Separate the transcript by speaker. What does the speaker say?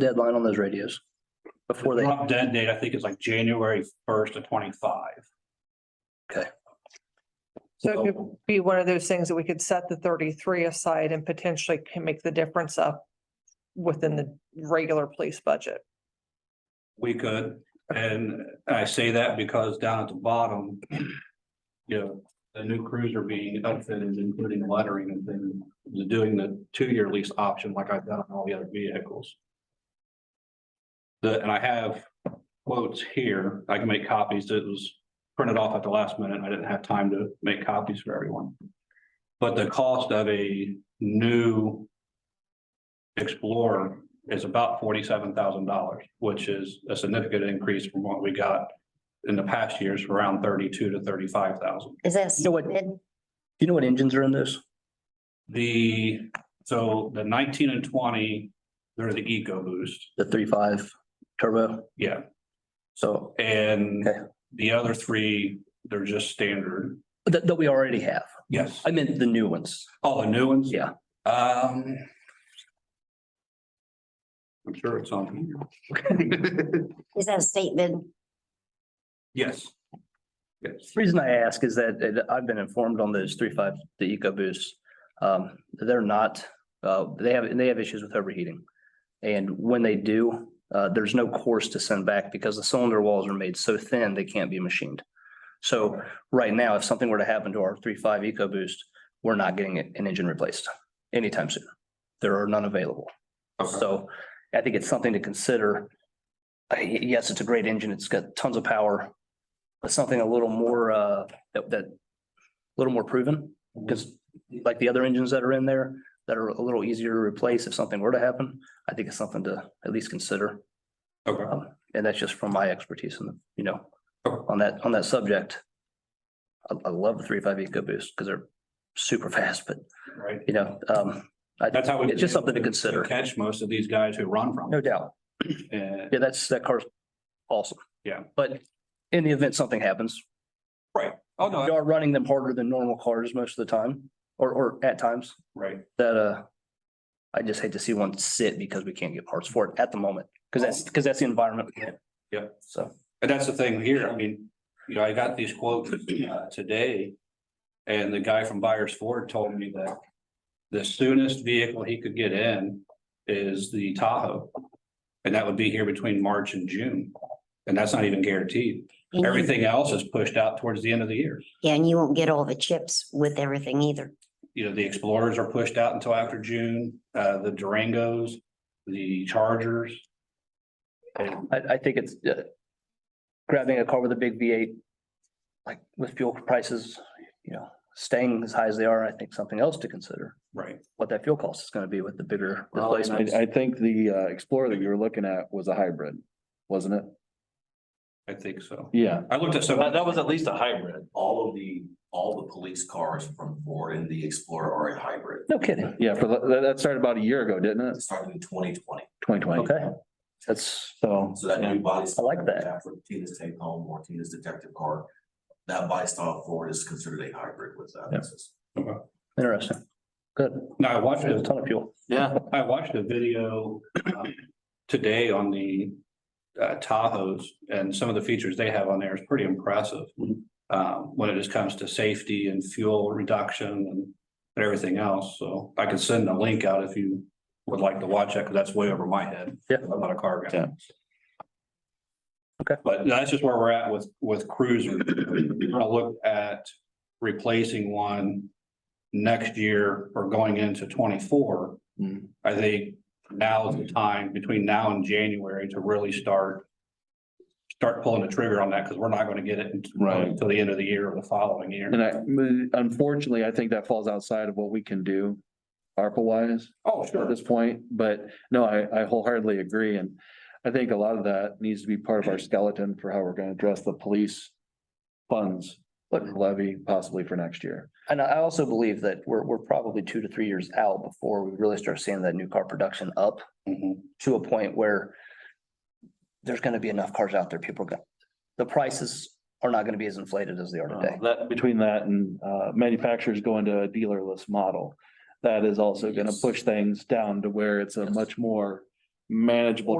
Speaker 1: deadline on those radios. Before they,
Speaker 2: Drop dead date, I think it's like January first to twenty-five.
Speaker 3: So it could be one of those things that we could set the thirty-three aside and potentially can make the difference up within the regular police budget.
Speaker 2: We could, and I say that because down at the bottom. You know, the new cruiser being outfitted, including lettering and then the- doing the two-year lease option like I've done on all the other vehicles. The, and I have quotes here, I can make copies, it was printed off at the last minute, I didn't have time to make copies for everyone. But the cost of a new. Explorer is about forty-seven thousand dollars, which is a significant increase from what we got in the past years, around thirty-two to thirty-five thousand.
Speaker 4: Is that?
Speaker 1: You know what-
Speaker 4: stupid?
Speaker 1: do you know what engines are in those?
Speaker 2: The, so the nineteen and twenty, they're the Eco Boost,
Speaker 1: The three five turbo?
Speaker 2: yeah,
Speaker 1: So
Speaker 2: and
Speaker 1: Okay.
Speaker 2: the other three, they're just standard.
Speaker 1: that, that we already have.
Speaker 2: Yes,
Speaker 1: I meant the new ones.
Speaker 2: all the new ones.
Speaker 1: Yeah.
Speaker 2: Um. I'm sure it's on here.
Speaker 4: Is that a statement?
Speaker 2: Yes. Yes,
Speaker 1: The Reason I ask is that it- I've been informed on those three five, the EcoBoosts. Um, they're not, uh, they have, they have issues with overheating. And when they do, uh, there's no course to send back because the cylinder walls are made so thin, they can't be machined. So right now, if something were to happen to our three five EcoBoost, we're not getting an engine replaced anytime soon. There are none available.
Speaker 2: Okay.
Speaker 1: So I think it's something to consider. Uh, y- Yes, it's a great engine. It's got tons of power. But something a little more, uh, that, that, a little more proven,
Speaker 2: Mm-hmm.
Speaker 1: because like the other engines that are in there that are a little easier to replace if something were to happen, I think it's something to at least consider.
Speaker 2: okay.
Speaker 1: Um, and that's just from my expertise and, you know,
Speaker 2: Okay.
Speaker 1: on that, on that subject. I, I love the three five EcoBoost because they're super fast, but
Speaker 2: Right,
Speaker 1: you know, um, I,
Speaker 2: that's how. we-
Speaker 1: it's just something to consider.
Speaker 2: Catch most of these guys who run from.
Speaker 1: No
Speaker 2: it.
Speaker 1: doubt.
Speaker 2: And
Speaker 1: Yeah, that's, that car's awesome.
Speaker 2: Yeah.
Speaker 1: But in the event something happens,
Speaker 2: Oh,
Speaker 1: we
Speaker 2: no,
Speaker 1: are running them harder than normal cars most of the time, or, or at times,
Speaker 2: right.
Speaker 1: that, uh, I just hate to see one sit because we can't get parts for it at the moment, because that's, because that's the environment. we're in.
Speaker 2: Yeah.
Speaker 1: So,
Speaker 2: And that's the thing here. I mean, you know, I got these quotes uh, today. And the guy from Buyers Ford told me that the soonest vehicle he could get in is the Tahoe. And that would be here between March and June. And that's not even guaranteed.
Speaker 1: Mm-hmm.
Speaker 4: And you-
Speaker 2: Everything else is pushed out towards the end of the year.
Speaker 4: Yeah, and you won't get all the chips with everything either.
Speaker 2: you know, the Explorers are pushed out until after June, uh, the Durangos, the Chargers. And
Speaker 1: I, I think it's, uh, grabbing a car with a big V eight, like with fuel prices, you know, staying as high as they are, I think something else to consider,
Speaker 2: right,
Speaker 1: what that fuel cost is gonna be with the bigger
Speaker 5: Well, and
Speaker 1: replacements.
Speaker 5: I, I think the uh, Explorer that you were looking at was a hybrid, wasn't it?
Speaker 2: I think so.
Speaker 5: Yeah.
Speaker 2: I looked at some,
Speaker 6: That, that was at least a hybrid.
Speaker 7: all of the, all the police cars from Ford and the Explorer are a hybrid.
Speaker 1: No kidding.
Speaker 5: Yeah, for, the- that, that started about a year ago, didn't
Speaker 7: It
Speaker 5: it?
Speaker 7: started in twenty twenty,
Speaker 5: Twenty twenty.
Speaker 1: Okay. That's,
Speaker 5: So,
Speaker 7: so that new body.
Speaker 1: I like that.
Speaker 7: For Tina's take home or Tina's detective car, that body style Ford is considered a hybrid with that.
Speaker 5: Yeah.
Speaker 7: It's-
Speaker 1: Interesting. Good.
Speaker 2: no, I watched
Speaker 1: There's a
Speaker 2: it,
Speaker 1: ton of fuel.
Speaker 5: yeah,
Speaker 2: I watched a video uh, today on the uh, Tahoes and some of the features they have on there is pretty impressive. Um, when it just comes to safety and fuel reduction and and everything else, so I could send a link out if you would like to watch that, because that's way over my head.
Speaker 1: Yeah.
Speaker 2: I'm not a car guy.
Speaker 5: Yeah.
Speaker 1: Okay.
Speaker 2: But that's just where we're at with, with cruiser. We're gonna look at replacing one next year or going into twenty-four.
Speaker 5: Hmm.
Speaker 2: I think now is the time between now and January to really start, start pulling the trigger on that, because we're not gonna get it until-
Speaker 5: Right.
Speaker 2: until the end of the year or the following year.
Speaker 5: and I, mm, unfortunately, I think that falls outside of what we can do ARPA wise.
Speaker 2: Oh,
Speaker 5: at this point, but no, I, I wholeheartedly agree, and I think a lot of that needs to be part of our skeleton for how we're gonna address the police funds levy possibly for next year.
Speaker 1: And I also believe that we're, we're probably two to three years out before we really start seeing that new car production up
Speaker 2: Mhm.
Speaker 1: to a point where there's gonna be enough cars out there. People are gonna, the prices are not gonna be as inflated as they are
Speaker 5: Uh,
Speaker 1: today.
Speaker 5: That, between that and uh, manufacturers going to a dealerless model, that is also gonna push things down to where it's a much more manageable